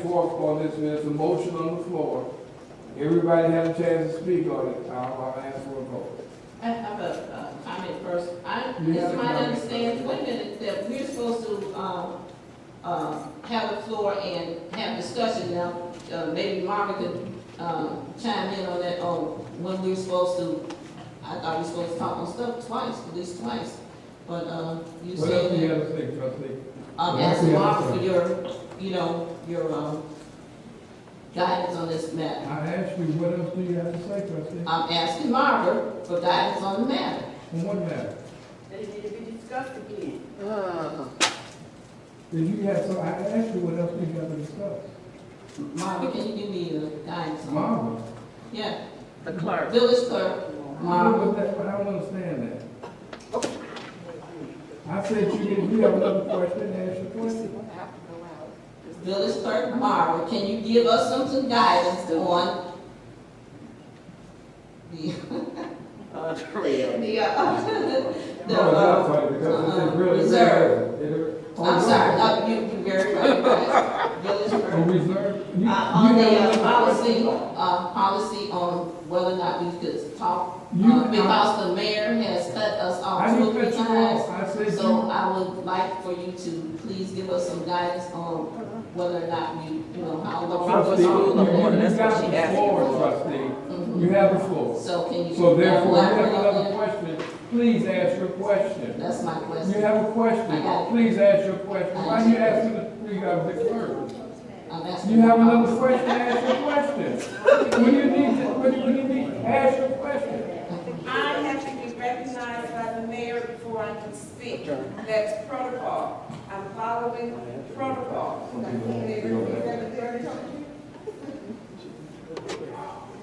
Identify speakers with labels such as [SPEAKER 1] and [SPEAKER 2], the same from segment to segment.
[SPEAKER 1] forth on this, there's a motion on the floor. Everybody had a chance to speak on it, I'll, I'll ask for a vote.
[SPEAKER 2] I have a uh, comment first. I,
[SPEAKER 1] You have
[SPEAKER 2] it's
[SPEAKER 1] a
[SPEAKER 2] my
[SPEAKER 1] comment.
[SPEAKER 2] understanding, wait a minute, that we're supposed to, um, uh, have the floor and have discussion now. Uh, maybe Marvin could, um, chime in on that, on when we're supposed to, I thought we were supposed to talk on stuff twice, at least twice. But, uh, you
[SPEAKER 1] What else do you
[SPEAKER 2] said that,
[SPEAKER 1] have to say, trustee?
[SPEAKER 2] I'm
[SPEAKER 1] What else do
[SPEAKER 2] asking
[SPEAKER 1] you have to
[SPEAKER 2] Marvin
[SPEAKER 1] say?
[SPEAKER 2] for your, you know, your, um, guidance on this matter.
[SPEAKER 1] I asked you, what else do you have to say, trustee?
[SPEAKER 2] I'm asking Marvin for guidance on the matter.
[SPEAKER 1] On what matter?
[SPEAKER 3] They need to be discussed again.
[SPEAKER 1] Did you have some, I asked you what else do you have to discuss?
[SPEAKER 2] Marvin, can you give me a guidance on that?
[SPEAKER 1] Marvin,
[SPEAKER 2] Yeah,
[SPEAKER 3] The clerk.
[SPEAKER 2] village clerk,
[SPEAKER 1] what
[SPEAKER 2] Marvin.
[SPEAKER 1] was that, I don't understand that. I said you didn't, you have another question, ask your question.
[SPEAKER 2] village clerk Marvin, can you give us some, some guidance on the,
[SPEAKER 3] Oh,
[SPEAKER 2] the, uh, the,
[SPEAKER 1] No, it's not
[SPEAKER 2] uh,
[SPEAKER 1] funny, because it's- it
[SPEAKER 2] uh,
[SPEAKER 1] really,
[SPEAKER 2] reserve.
[SPEAKER 1] really is. It-
[SPEAKER 2] I'm sorry, uh, you, you very right, right, village
[SPEAKER 1] A
[SPEAKER 2] clerk.
[SPEAKER 1] reserve? Oh, You-
[SPEAKER 2] Uh, on
[SPEAKER 1] you
[SPEAKER 2] the
[SPEAKER 1] have
[SPEAKER 2] uh,
[SPEAKER 1] another
[SPEAKER 2] policy,
[SPEAKER 1] question?
[SPEAKER 2] uh, policy on whether or not we could talk,
[SPEAKER 1] You-
[SPEAKER 2] uh, because the mayor has cut us
[SPEAKER 1] I
[SPEAKER 2] off two,
[SPEAKER 1] didn't
[SPEAKER 2] or three
[SPEAKER 1] cut you off,
[SPEAKER 2] times.
[SPEAKER 1] I said you,
[SPEAKER 2] So I would like for you to please give us some guidance on whether or not we, you know, how long.
[SPEAKER 1] trustee, you
[SPEAKER 2] Mhm.
[SPEAKER 1] you- you got the floor, trustee, you have the floor.
[SPEAKER 2] Mm-hmm. So can you?
[SPEAKER 1] So therefore, if you have
[SPEAKER 2] elaborate on
[SPEAKER 1] another
[SPEAKER 2] that?
[SPEAKER 1] question, please ask your question.
[SPEAKER 2] That's my
[SPEAKER 1] You
[SPEAKER 2] question.
[SPEAKER 1] have a
[SPEAKER 2] I got
[SPEAKER 1] question,
[SPEAKER 2] it.
[SPEAKER 1] please ask your question.
[SPEAKER 2] I
[SPEAKER 1] Why you
[SPEAKER 2] understand.
[SPEAKER 1] asking the, you got the clerk?
[SPEAKER 2] I'm asking.
[SPEAKER 1] You have another question, ask your question. When you need, to- when you- when you need, ask your question.
[SPEAKER 4] I have to be recognized by the mayor before I can speak. That's protocol. I'm following protocol.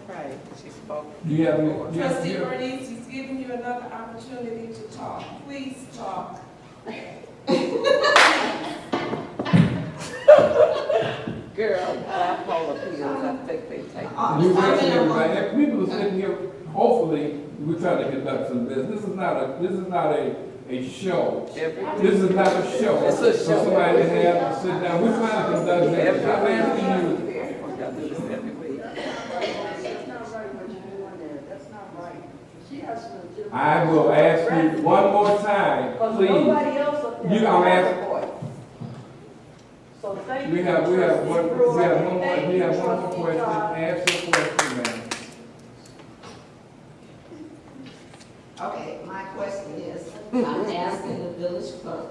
[SPEAKER 3] Right, she spoke.
[SPEAKER 1] Do you have, any- do you have, do
[SPEAKER 4] Trustee
[SPEAKER 1] you have?
[SPEAKER 4] Bernice, he's giving you another opportunity to talk. Please talk.
[SPEAKER 3] Girl, I pull the pills, I think they take.
[SPEAKER 2] Uh,
[SPEAKER 1] You
[SPEAKER 2] I'm
[SPEAKER 1] listen,
[SPEAKER 2] in a
[SPEAKER 1] everybody,
[SPEAKER 2] room.
[SPEAKER 1] If people are sitting here, hopefully, we're trying to conduct some business. This is not a, this is not a, a show.
[SPEAKER 3] Every,
[SPEAKER 1] This is not a show.
[SPEAKER 3] It's a
[SPEAKER 1] For
[SPEAKER 3] show.
[SPEAKER 1] somebody to have to sit down, we're trying to conduct business. I'm asking you,
[SPEAKER 3] I do this every week.
[SPEAKER 5] That's not right what you're doing there, that's not right. She has to. legitimate-
[SPEAKER 1] I will ask you one more time,
[SPEAKER 5] Because
[SPEAKER 1] please.
[SPEAKER 5] nobody else up there.
[SPEAKER 1] You- I'm
[SPEAKER 5] has a
[SPEAKER 1] asking-
[SPEAKER 5] voice. So thank you.
[SPEAKER 1] We have, we have one,
[SPEAKER 5] Trustee Brewer.
[SPEAKER 1] we have one more,
[SPEAKER 5] Thank
[SPEAKER 1] we
[SPEAKER 5] you,
[SPEAKER 1] have one more
[SPEAKER 5] Trustee
[SPEAKER 1] question.
[SPEAKER 5] Todd.
[SPEAKER 1] Ask your question, ma'am.
[SPEAKER 2] Okay, my question is, I'm asking the village clerk,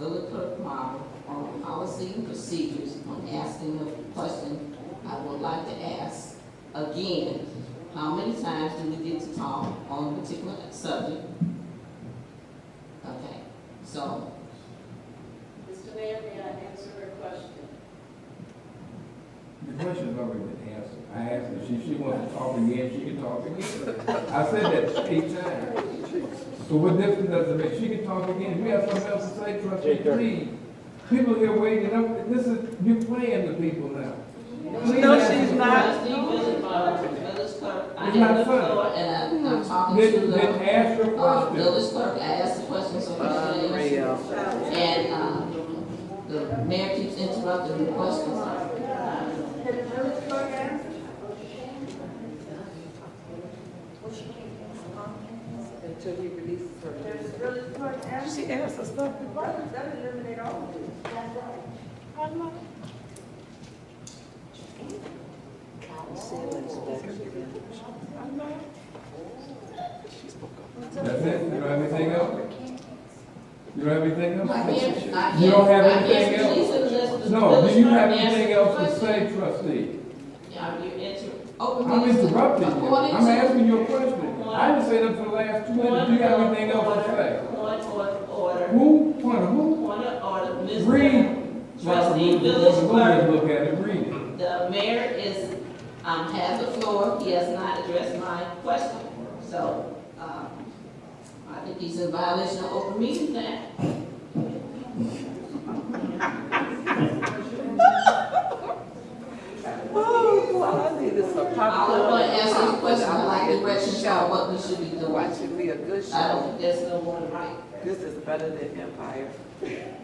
[SPEAKER 2] village clerk Marvin, on policy and procedures, I'm asking her a question I would like to ask again. How many times do we get to talk on a particular subject? Okay, so,
[SPEAKER 4] Mr. Mayor, may I answer her question?
[SPEAKER 1] The question's already been answered. I asked her, she, she wants to talk again, she can talk again. I said that eight times. So what difference does it make? She can talk again. We have something else to say, trustee, please. People here waiting up, this is, you're playing the people now. Please
[SPEAKER 3] No,
[SPEAKER 1] ask
[SPEAKER 3] she's
[SPEAKER 1] the
[SPEAKER 3] not.
[SPEAKER 2] trustee village clerk, village clerk, I
[SPEAKER 1] It's not
[SPEAKER 2] have the
[SPEAKER 1] fair.
[SPEAKER 2] floor and I- I'm talking to
[SPEAKER 1] Then,
[SPEAKER 2] the.
[SPEAKER 1] then ask your
[SPEAKER 2] Uh,
[SPEAKER 1] question.
[SPEAKER 2] village clerk, I asked the question, so we should answer.
[SPEAKER 3] Unreal.
[SPEAKER 2] And, um, the mayor keeps interrupting the questions.
[SPEAKER 3] Until he releases her.
[SPEAKER 5] There's really good answers.
[SPEAKER 3] She asks us stuff.
[SPEAKER 5] Right, that eliminate all of this, that's right.
[SPEAKER 1] That's it? You don't have anything else? You don't have anything else?
[SPEAKER 2] I can't, I can't.
[SPEAKER 1] You don't have
[SPEAKER 2] I can't
[SPEAKER 1] anything
[SPEAKER 2] release
[SPEAKER 1] else?
[SPEAKER 2] it unless the
[SPEAKER 1] No,
[SPEAKER 2] village
[SPEAKER 1] do you
[SPEAKER 2] clerk
[SPEAKER 1] have
[SPEAKER 2] answers
[SPEAKER 1] anything
[SPEAKER 2] the
[SPEAKER 1] else to
[SPEAKER 2] question.
[SPEAKER 1] say, trustee?
[SPEAKER 2] Are you inter, open
[SPEAKER 1] I'm
[SPEAKER 2] meetings
[SPEAKER 1] interrupting you.
[SPEAKER 2] according
[SPEAKER 1] I'm
[SPEAKER 2] to-
[SPEAKER 1] asking you a question. I didn't say that for the last two minutes. Do you have anything else to say?
[SPEAKER 2] Point of order,
[SPEAKER 1] Who, point of who?
[SPEAKER 2] point of order, Mr.
[SPEAKER 1] Read.
[SPEAKER 2] Trustee,
[SPEAKER 1] Look,
[SPEAKER 2] village
[SPEAKER 1] look,
[SPEAKER 2] clerk,
[SPEAKER 1] Look at it, read it.
[SPEAKER 2] The mayor is, um, has the floor, he has not addressed my question, so, um, I think he's in violation of open meetings act.
[SPEAKER 3] Oh, all I need is some
[SPEAKER 2] All I
[SPEAKER 3] popcorn.
[SPEAKER 2] want to answer is question, I like directions on what we should be doing.
[SPEAKER 3] Watch it be a good
[SPEAKER 2] I don't
[SPEAKER 3] show.
[SPEAKER 2] think there's no one right.
[SPEAKER 3] This is better than Empire.